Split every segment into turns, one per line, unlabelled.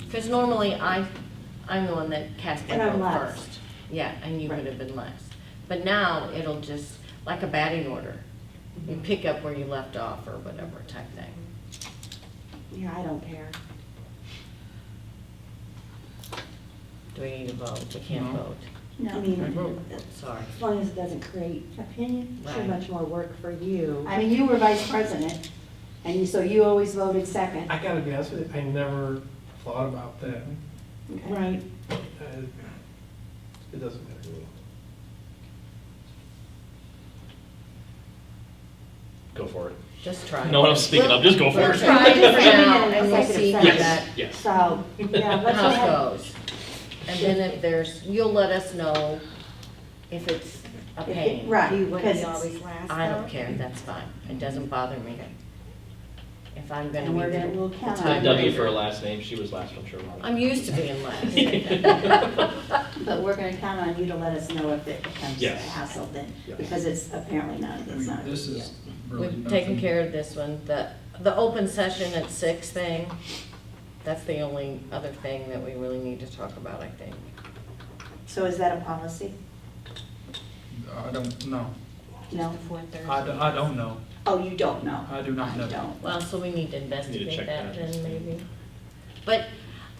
Because normally I, I'm the one that casts my
And I'm
vote
last.
first. Yeah, and you would
Right.
have been last. But now it'll just, like a batting order, you
Mm-hmm.
pick up where you left off or whatever type thing.
Yeah, I don't care.
Do we need to vote? We can't
No.
vote.
I
No.
mean,
Sorry.
as long as it doesn't create opinion, too
Right.
much more work for you.
I mean, you were vice president, and you- so you always voted second.
I gotta be honest with you, I never thought about that.
Okay.
Right.
Uh, It doesn't matter to me.
Go for it.
Just try.
No one else is speaking up, just go for
We'll
it.
try it for now and we'll
Executive
see how
session.
that,
Yes, yes.
So, yeah, let's go ahead.
how it goes. And then if there's, you'll let us know if it's a pain.
Right.
You wouldn't
'cause
be
it's-
always last.
I don't care, that's fine. It doesn't bother me. If I'm gonna
And we're
be
gonna- we'll
the
count
time
on
W for her
reader.
last name, she was last on Sherwood.
I'm used to being last.
Yeah.
But we're gonna count on you to let us know if it becomes a
Yes.
hassle then,
Yes.
because it's apparently not,
I
it's
mean,
not. a
this
big
is really
We've taken
nothing.
care of this one. The, the open session at six thing, that's the only other thing that we really need to talk about, I think.
deal. So is that a policy?
I don't know.
No?
I, do- I don't know.
Oh, you don't know?
I do not
You
know.
don't.
Well, so we need to investigate
check
that
that.
then maybe. But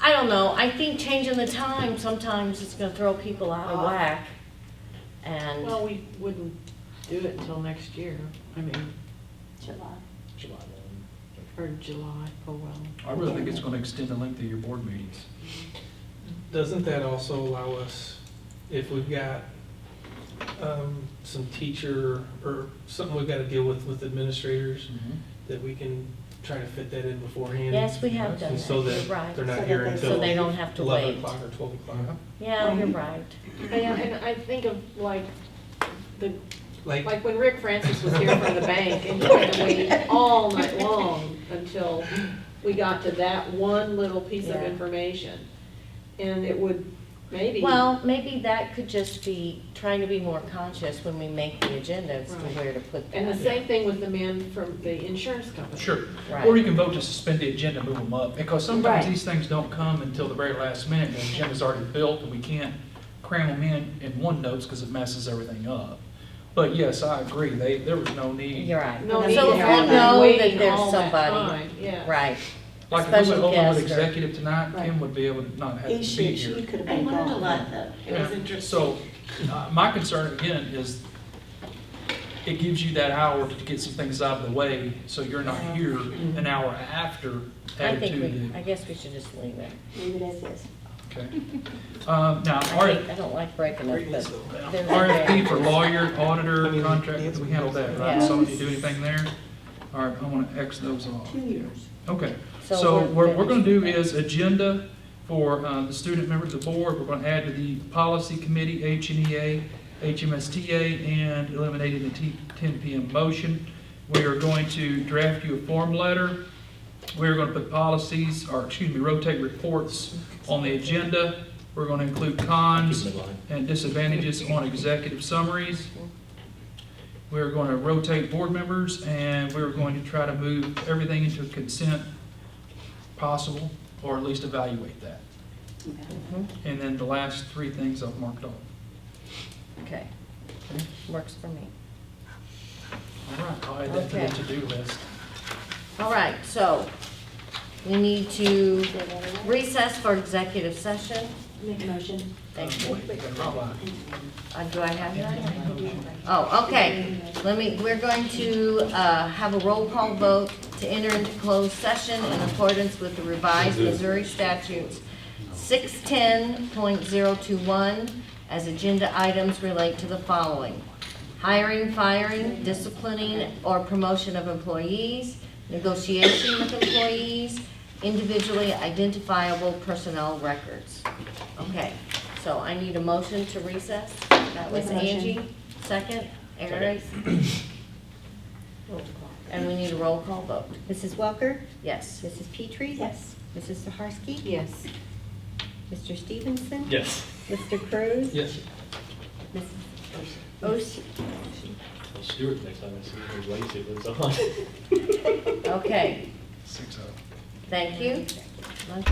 I don't know, I think changing the time sometimes is gonna throw people out
Oh.
of whack. And,
Well, we wouldn't do it until next year, I mean,
July.
July one.
or July, oh well.
I really think it's gonna extend the length of your board meetings.
Doesn't that also allow us, if we've got um, some teacher or something we've got to deal with with administrators, that we can try to fit that in beforehand?
yes, we have done
And so
that,
that
you're right.
they're
So
not
that
here
they-
until
So they don't have to
11
wait.
o'clock or 12 o'clock.
Uh-huh.
Yeah, you're right.
And, and I think of like, the,
Like,
like when Rick Francis was here from the bank and he had to wait all night long until we got to that one little piece of
Yeah.
information. And it would maybe.
Well, maybe that could just be trying to be more conscious when we make the agenda as to
Right.
where to put that.
And the same thing with the man from the insurance company.
Sure.
Right.
Or you can vote to suspend the agenda, move them up, because sometimes
Right.
these things don't come until the very last minute, and the agenda's already built, and we can't cram them in in one notes, because it messes everything up. But yes, I agree, they, there was no need.
You're right.
No,
So
need
if
to
we
have
know
them
that
waiting
there's
all that
somebody-
time, Yeah.
Right.
Like, if we
Special
went over
guest or-
with executive tonight,
Right.
Kim would be able to not have to be
He
here.
should, she could have
I
been
learned a lot,
gone.
though. It was
Yeah.
interesting.
So, uh, my concern again is, it gives you that hour to get some things out of the way, so you're not here an hour after
Mm-hmm. I
added
think
to
we, I
the.
guess we should just leave it.
Leave it as is.
Okay. Um, now,
I
R-
hate, I don't like breaking it, but there's
RFP for lawyer, auditor, contract, we handled that, right?
Yeah.
So, did you do anything there? All right, I want to X those off.
Two years.
Okay,
So
so
we're-
what we're gonna do is agenda for uh, the student members of the board, we're gonna add to the policy committee, E HNEA, HMSTA, and eliminating the T- 10 PM motion. We are going to draft you a form letter. We're gonna put policies, or excuse me, rotate reports on the agenda. We're gonna include cons,
Keep it in line.
and disadvantages on executive summaries. We're going to rotate board members, and we're going to try to move everything into consent possible, or at least evaluate that.
Okay.
And then the last three things I've marked off.
Okay. Works for me.
All right, I'll add that to
Okay.
the to-do list.
All right, so we need to recess for executive session.
Make a motion.
Thank you.
Um, wait, wait, wait, wait.
Uh, Do I have that? Oh, okay. Let me, we're going to uh, have a roll call vote to enter into closed session in accordance with the revised Missouri statutes 610.021 as agenda items relate to the following. Hiring, firing, disciplining, or promotion of employees, negotiation with employees, individually identifiable personnel records. Okay, so I need a motion to recess. That was
Motion.
Angie, second, Eric. And we need a roll call vote.
Mrs. Welker,
Yes.
Mrs. Petrie,
Yes.
Mrs. Saharsky,
Yes.
Mr. Stevenson,
Yes.
Mr. Cruz,
Yes.
Mrs. Oshie.
Well, Stuart, next time I see him, he's late, he lives on.
Okay,
Six oh.
thank you. Okay.